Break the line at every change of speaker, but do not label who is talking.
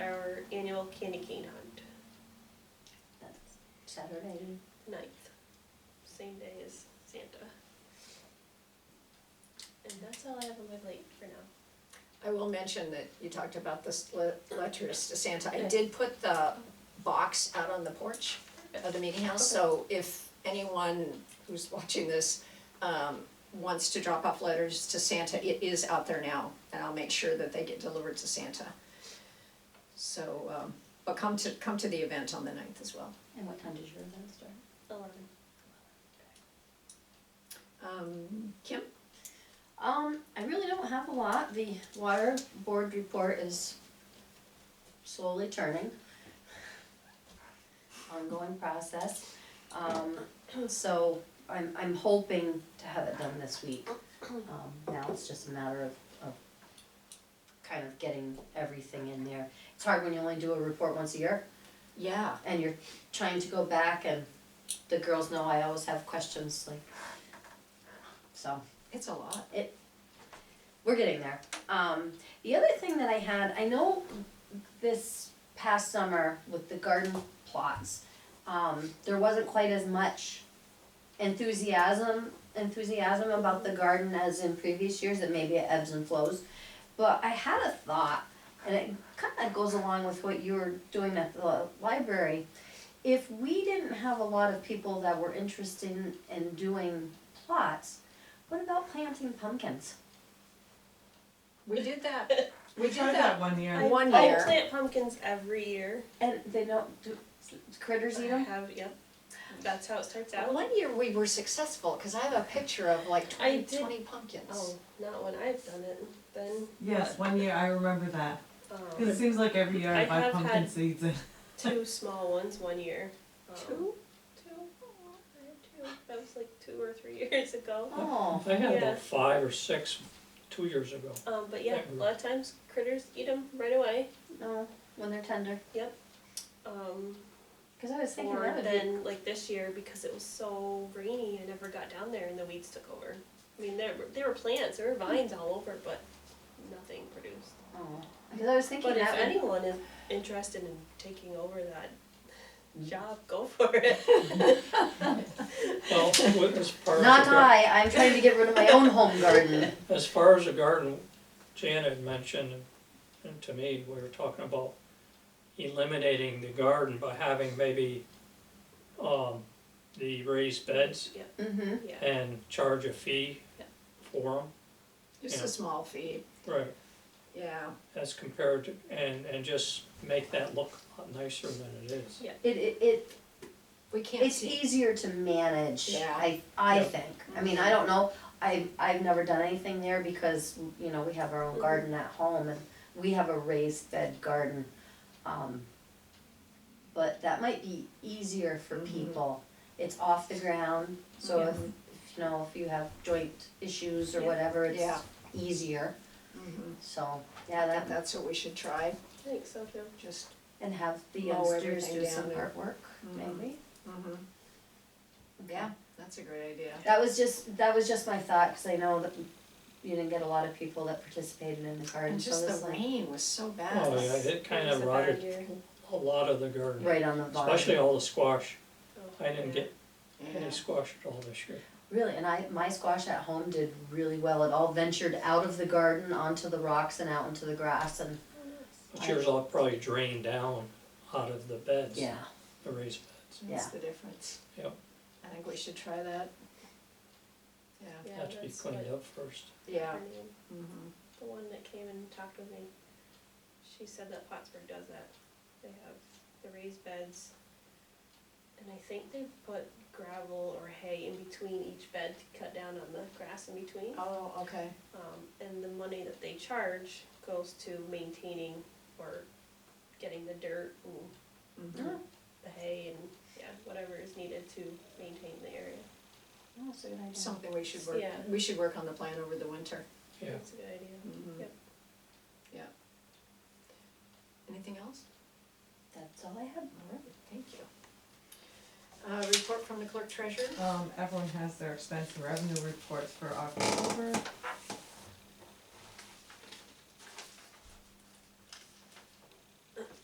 Hill Candy Cane Hunt,
That's Saturday.
ninth, same day as Santa. And that's all I have on my plate for now.
I will mention that you talked about the le- letters to Santa. I did put the box out on the porch of the meeting house, so if anyone who's watching this um, wants to drop off letters to Santa, it is out there now, and I'll make sure that they get delivered to Santa. So, um, but come to, come to the event on the ninth as well.
And what time does your event start?
Eleven.
Um, Kim?
Um, I really don't have a lot. The water board report is slowly turning. Ongoing process. Um, so I'm, I'm hoping to have it done this week. Um, now it's just a matter of, of kind of getting everything in there. It's hard when you only do a report once a year
Yeah.
and you're trying to go back and the girls know I always have questions like, so.
It's a lot.
We're getting there. Um, the other thing that I had, I know this past summer with the garden plots, um, there wasn't quite as much enthusiasm enthusiasm about the garden as in previous years. That maybe it ebbs and flows, but I had a thought, and it kind of goes along with what you were doing at the library. If we didn't have a lot of people that were interested in doing plots, what about planting pumpkins?
We did that. We did
tried
that.
one year.
I- One
I-
year.
I plant pumpkins every year.
And they don't do critters eat
I
them.
have, yep. That's how it starts out.
One year we were successful, cause I have a picture of like
I
20
did-
20 pumpkins.
Oh, not when I've done it, then,
Yes, one year, I remember that. 'Cause it
um,
seems like every year
I
I buy
have
pumpkin
had-
seeds and.
two small ones one year. Um,
Two?
Two, oh, I had two, that was like two or three years ago.
Oh,
I had
Yeah.
about five or six two years ago.
Um, but yeah, a lot of times critters eat them right away.
no, when they're tender.
Um,
Because I was thinking
or
that would be.
then like this year because it was so rainy, I never got down there and the weeds took over. I mean, there were, there were plants, there were vines all over, but nothing produced.
Because Oh. I was thinking
But if
that would.
anyone is interested in taking over that job, go for it.
Well, with- as far as.
Not
the gar-
I. I'm trying to get rid of my own home garden.
As far as the garden, Janet had mentioned, and to me, we were talking about eliminating the garden by having maybe, um, the raised beds
Yeah,
Mm-hmm.
yeah.
and charge a fee
Yeah.
for
Just
Yeah.
a small fee,
them. Right.
yeah.
As compared to, and, and just make that look a lot nicer than it is.
It, it it
We can't
it's
see.
easier to manage.
Yeah. Mm-hmm.
I I
Yeah.
think. I mean, I don't know. I I've never done anything there because you know we have our own
Mm-hmm.
Mhm.
garden at home and we have a raised bed garden. Um, but that might be easier for
Mhm.
people. It's off the ground, so
Yeah.
if, if you know if you have joint issues or
Yeah.
whatever, it's
Yeah.
easier.
Mhm.
So yeah,
That,
that
that's what we should try,
I think so too.
just,
and have the
Mow
youngsters
everything
do
down
some
there.
artwork,
Mhm.
maybe.
yeah, that's a great idea.
That was just that was just my thought because I know that you didn't get a lot of people that participated in the garden,
And
so
just
this
the
like
rain was so bad.
Oh, yeah, it kind
It was
of
a bad
rotted
year.
a lot of the garden,
right on the bottom.
especially all the squash.
Oh,
I didn't
yeah.
get
Yeah.
any squash at all this year.
Really, and I my squash at home did really well. It all ventured out of the garden onto the rocks and out into the grass and
Oh, nice.
But yours all probably drained down out of the beds,
yeah.
the raised beds.
That's
Yeah.
the difference.
Yep.
I think we should try that. Yeah,
Yeah,
Had to be
that's
cleaned
what
up first.
yeah.
her name-
mhm.
The one that came and talked with me, she said that Plattsburgh does that. They have the raised beds. And I think they put gravel or hay in between each bed to cut down on the grass in between.
Oh, okay,
Um, and the money that they charge goes to maintaining or getting the dirt and
mhm.
the hay and, yeah, whatever is needed to maintain the area.
Oh,
That's a good idea.
Something we should work,
Yeah.
we should work on the plan over the winter.
Yeah.
That's a good idea.
Mhm.
Yep.
Yeah. Anything else?
That's all I have.
All right, thank you. Uh, report from the clerk treasurer?
Um, everyone has their expense and revenue reports for October.